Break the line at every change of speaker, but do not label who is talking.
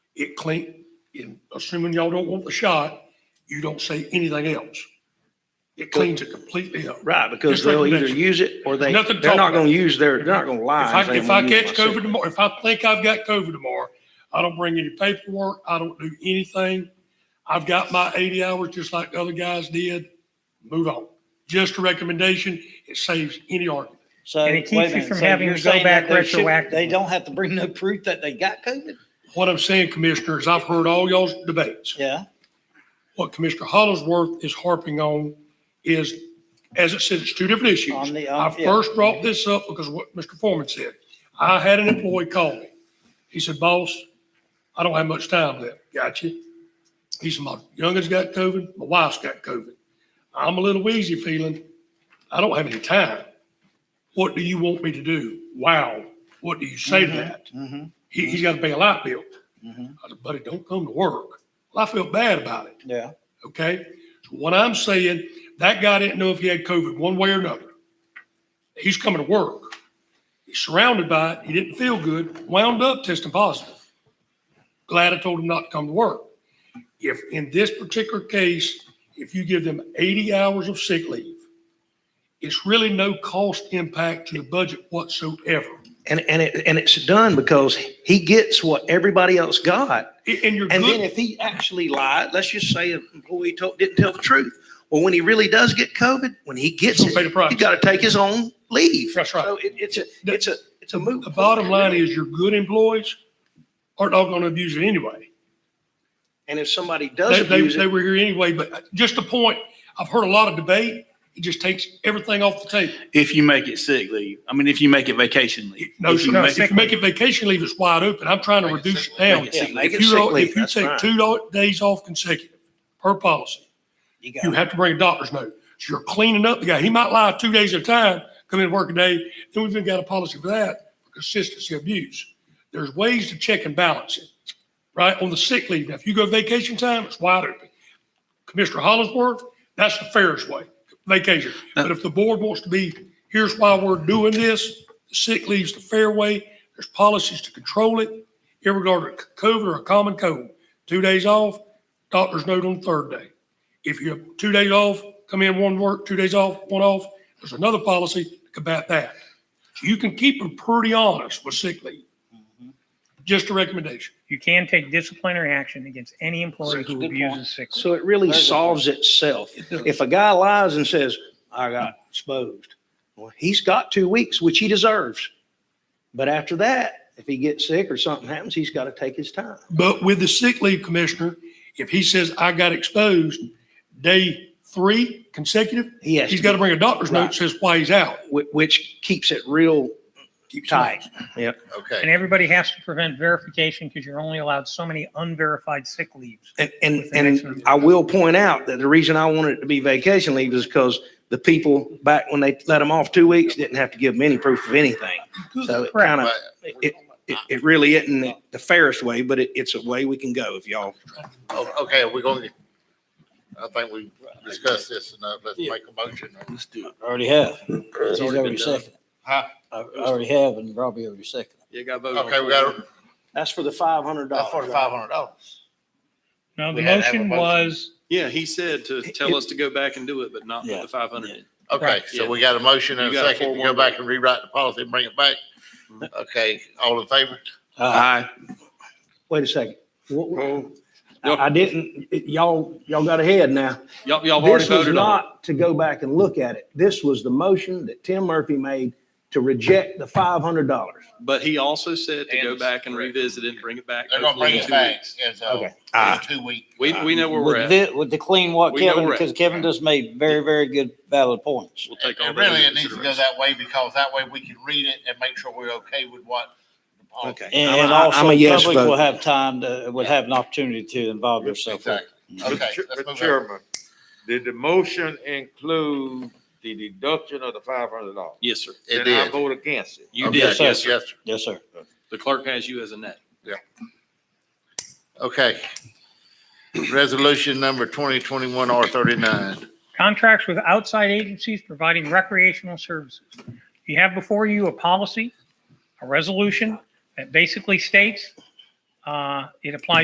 it clean, and assuming y'all don't want the shot, you don't say anything else. It cleans it completely up.
Right, because
Just like
they'll either
convention.
use it or they,
Nothing to
they're
talk
not
about.
gonna use their, they're not gonna
If
lie. and
I,
say,
if
"Well,
I
you
catch
used my
COVID tomorrow, if I think I've got COVID tomorrow, I don't bring any paperwork, I don't do anything. I've got my eighty hours just like the other guys did. Move on. Just a recommendation. It saves any argument.
So.
And it keeps
wait a
you
minute.
from
So
having
you're
to go
saying that
back
they should-
retroactively.
They don't have to bring no proof that they got COVID?
What I'm saying, Commissioner, is I've heard all y'all's debates.
Yeah.
What Commissioner Hollisworth is harping on is, as it says, it's two different issues.
On the,
I
um, yeah.
first brought this up because of what Mr. Foreman said. I had an employee call me. He said, boss, I don't have much time left. Gotcha. He said, my youngest got COVID, my wife's got COVID. I'm a little wheezy feeling. I don't have any time. What do you want me to do? Wow. What do you say to that?
Mhm.
He, he's got to pay a light bill.
Mhm.
I said, buddy, don't come to work. Well, I felt bad about it.
Yeah.
Okay. So What I'm saying, that guy didn't know if he had COVID one way or another. He's coming to work. He's surrounded by it. He didn't feel good, wound up testing positive. Glad I told him not to come to work. If in this particular case, if you give them 80 hours of sick leave, it's really no cost impact to the budget whatsoever.
And, and it, and it's done because he gets what everybody else got.
A- And you're
And
good.
then if he actually lied, let's just say an employee told, didn't tell the truth. Well, when he really does get COVID, when he gets
He's gonna pay
it,
the price.
he gotta take his own leave.
That's right.
So it, it's a,
The-
it's a, it's a moot.
The bottom
point, really.
line is your good employees are not going to abuse it anyway.
And if somebody does
They, they,
abuse
they
it,
were here anyway, but just a point, I've heard a lot of debate. It just takes everything off the table.
If you make it sick leave, I mean, if you make it vacation leave.
No,
If you
sir.
make-
If you make it vacation leave, it's wide open. I'm trying to reduce it down.
Make it sick leave. Make
If
it
you,
sick
don't-
leave,
if you
that's
take
fine.
two do- days off consecutive per policy,
You
you
got,
have to bring a doctor's note. So you're cleaning up the guy. He might lie two days at a time, come in work a day. Then we've even got a policy for that, for consistency abuse. There's ways to check and balance it, right? On the sick leave. Now, if you go vacation time, it's wide open. Commissioner Hollinsworth, that's the fairest way, vacation. But if the board wants to be, here's why we're doing this, sick leave's the fair way. There's policies to control it, irregardless of COVID or a common cold. Two days off, doctor's note on the third day. If you have two days off, come in one work, two days off, one off, there's another policy to combat that. So you can keep them pretty honest with sick leave.
Mm-hmm.
Just a recommendation.
You can take disciplinary action against any employee
That's a
who
good point.
abuses sick leave.
so it really
Very good
solves itself. If a guy lies and says, I got exposed, well, he's got two weeks, which he deserves. But after that, if he gets sick or something happens, he's got to take his time.
But with the sick leave commissioner, if he says, I got exposed, day three consecutive,
He has,
he's got to bring a doctor's note
Right.
that says why he's out.
whi- which keeps it real tight. Yep.
Okay.
And everybody has to prevent verification because you're only allowed so many unverified sick leaves.
And, and,
With the next
and
one.
I will point out that the reason I wanted it to be vacation leave is because the people back when they let them off two weeks didn't have to give them any proof of anything. So it kind of,
But
it, it, it really isn't the fairest way, but it, it's a way we can go if y'all.
o- Okay, we're going to, I think we discussed this enough. Let's make a motion. Let's do it.
I already have. He's
already been
already
done.
second.
Huh?
I I already have and Robbie already second.
Okay, we got, a-
That's for the five hundred
that's for the five hundred dollars.
No, the
We had to have a
motion
motion.
was,
Yeah, he said to tell us to go back and do it, but not
Yeah.
with the five hundred.
Okay,
Right,
so
yeah.
we got a motion and a
You got a
second to go
4-1.
back and rewrite the policy and bring it back. Okay, all in favor?
Uh,
Wait a second. What- what-
Y'all-
I I didn't, y'all, y'all got ahead now.
Y'all, y'all have already
This was
voted on it.
not to go back and look at it. This was the motion that Tim Murphy made to reject the five hundred dollars.
But he also said to
And
go
it's
back and
correct.
revisit it and bring it back.
They're gonna
hopefully
bring
in
it
two
back
weeks.
as a,
Ah.
two week.
We, we know where we're
With
at.
the, with the clean what
We know
Kevin,
we're at.
because Kevin just made very, very good valid points.
We'll take all
And
that
really,
into
it needs to go
consideration.
that way because that way we can read it and make sure we're okay with what. the policy-
And
I'm a-
and
I'm
also
a yes
public will
vote.
have time to, would have an opportunity to involve yourself. with it.
Exactly. Okay,
Mr. Ch-
let's
Mr.
move on.
Chairman, did the motion include the deduction of the five hundred dollars?
Yes, sir.
It
Then I
did.
vote against it.
You
Okay,
did, yes, sir.
sir.
Yes, sir.
The clerk has you as a net.
Okay. Resolution number twenty twenty-one R thirty-nine.
contracts with outside agencies providing recreational services. You have before you a policy, a resolution that basically states, uh, it applies